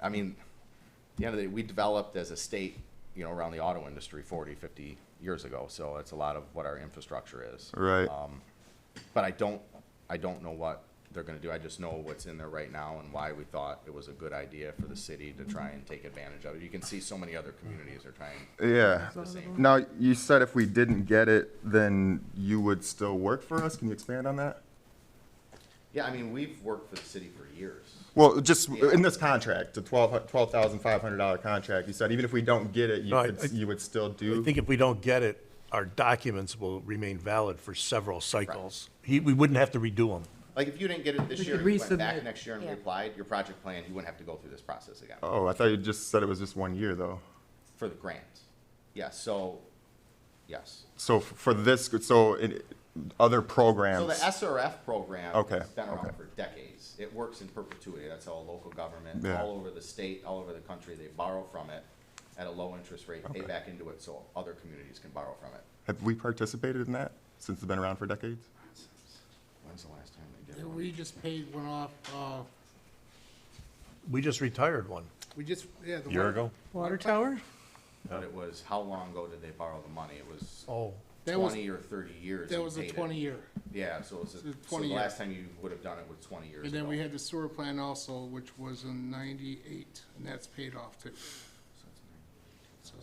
I mean, at the end of the day, we developed as a state, you know, around the auto industry 40, 50 years ago. So it's a lot of what our infrastructure is. Right. Um, but I don't, I don't know what they're gonna do. I just know what's in there right now and why we thought it was a good idea for the city to try and take advantage of it. You can see so many other communities are trying Yeah. the same. Now, you said if we didn't get it, then you would still work for us? Can you expand on that? Yeah, I mean, we've worked for the city for years. Well, just in this contract, the twelve, twelve thousand five hundred dollar contract, you said even if we don't get it, you No, I- I- could, you would still I do? think if we don't get it, our documents will remain valid for several cycles. He, we wouldn't have to redo them. Like, if you didn't get it this We year, you could went back resubmit, next year and yeah. reapplied, your project plan, you wouldn't have to go through this process again Oh, I thought you just said it was just one year, though. for the grant. Yeah, so, yes. So f- for this, so in other So the programs, SRF program Okay, has been around okay. for decades. It works in perpetuity. That's how a local government, Yeah. all over the state, all over the country, they borrow from it at a low interest rate, pay back into it so other communities can borrow from it. have we participated in that since it's been around for decades? When's the last time they did Yeah, one? We just paid one off, uh, We just retired one. we just, yeah. the Year one- ago? Water tower? But it was, how long ago did they borrow the money? It was Oh, That was, twenty or thirty years. that we was a paid it. twenty year. Yeah, so it was, a- was so 20 the year. last time you would have done it was twenty years And then ago. we had the sewer plant also, which was in ninety-eight, and that's paid off too. So it's So-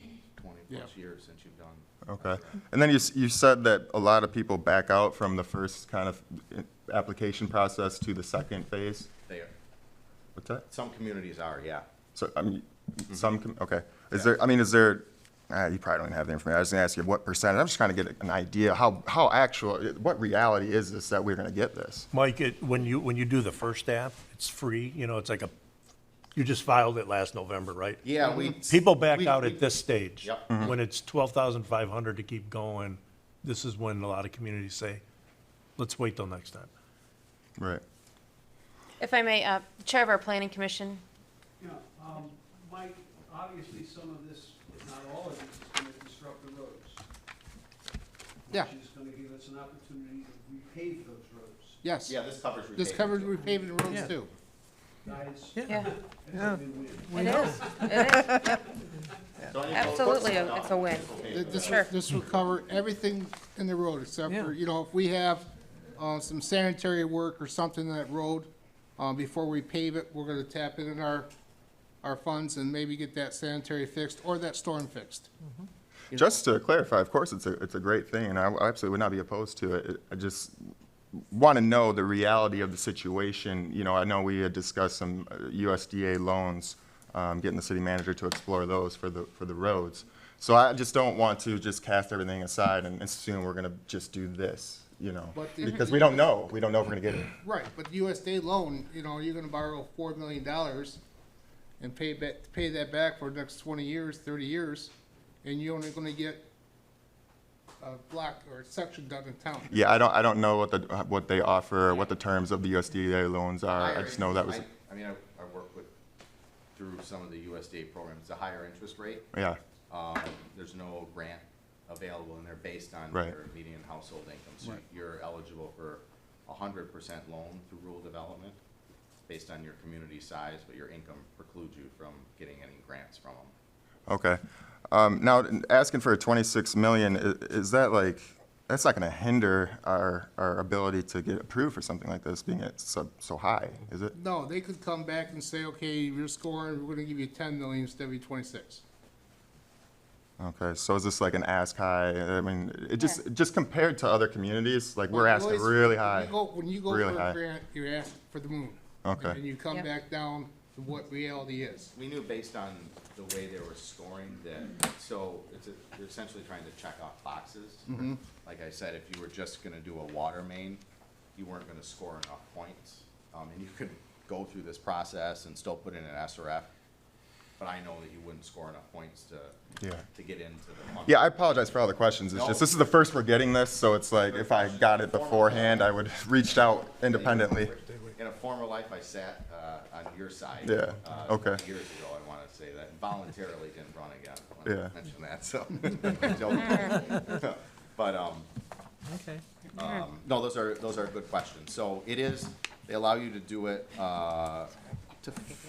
19, Twenty Yeah. plus years since you've done. Okay. And then you, s- you said that a lot of people back out from the first kind of eh, application process to the second phase? They are, What's that? some communities are, yeah. So, I mean, some, com- okay. Is there, I mean, is there, uh, you probably don't have the information. I was gonna ask you what percentage. I'm just trying to get an idea how, how actual, what reality is this that we're gonna get this? Mike, it, when you, when you do the first app, it's free, you know, it's like a, you just filed it last November, right? Yeah, we. Mm-hmm. People back we- out we- at this stage. Yep. When it's twelve thousand five hundred to keep going, this is when a lot of communities say, let's wait till next time. Right. If I may, uh, Chair of our Planning Commission, Yeah, um, Mike, obviously some of this, if not all of this, is gonna disrupt the roads. Yeah. Which is gonna give us an opportunity to repave those roads. Yes. Yeah, this covers. This repaving, covers too. repaving roads too. Guys, yeah, it's a win-win. it is, it is, So any- absolutely, a- it's a win. Th- This will, Sure. this will cover everything in the road except for, you know, if we have, uh, some sanitary work or something in that road, uh, before we pave it, we're gonna tap into our, our funds and maybe get that sanitary fixed or that storm fixed. Just to clarify, of course, it's a, it's a great thing, and I I absolutely would not be opposed to it. It- I just want to know the reality of the situation. You know, I know we had discussed some uh, USDA loans, um, getting the city manager to explore those for the, for the roads. So I just don't want to just cast everything aside and assume we're going to just do this, you know? But the- Because we don't know, we don't know if we're going to get it. Right, but USDA loan, you know, you're gonna borrow four million dollars and pay back, pay that back for the next twenty years, thirty years, and you're only gonna get a block or a section done in town. Yeah, I don't, I don't know what the, what they offer, or what the terms of the USDA loans are. I just know that was, I I mean, I, I work with, through some of the USDA programs, it's a higher interest rate. yeah, Um, there's no grant available and they're based on Right. your median household income. So you're eligible for a hundred percent loan through rural development based on your community size, but your income precludes you from getting any grants from them. okay. Um, now, asking for a twenty-six million, i- is that like, that's not gonna hinder our, our ability to get approved for something like this being at so, so high, is it? No, they could come back and say, okay, you're scoring, we're gonna give you ten million instead of your twenty-six. Okay, so is this like an ask high? I mean, it just, just compared to other communities, like we're asking Always- really When high. you go- when you go really for high. a grant, you ask for the moon. Okay. And you come Yep. back down to what reality is. We knew based on the way they were scoring that, so it's, a- they're essentially trying to check off boxes. Mm-hmm. Like I said, if you were just gonna do a water main, you weren't gonna score enough points. Um, and you could go through this process and still put in an SRF, but I know that you wouldn't score enough points to, Yeah. to get into the. fund. Yeah, I apologize for all the questions. It's No. just, this is the first we're getting this, so it's like, if I got it beforehand, I would have reached out independently. In a former life, I sat, uh, on your side. Yeah, uh, okay. Years ago, I wanna say that, and voluntarily didn't run again. I Yeah. wanna Mention that, so. Mm-hmm. Joke. But, um, Okay. Um, No, those are, those are good questions. So it is, they allow you to do it uh, up to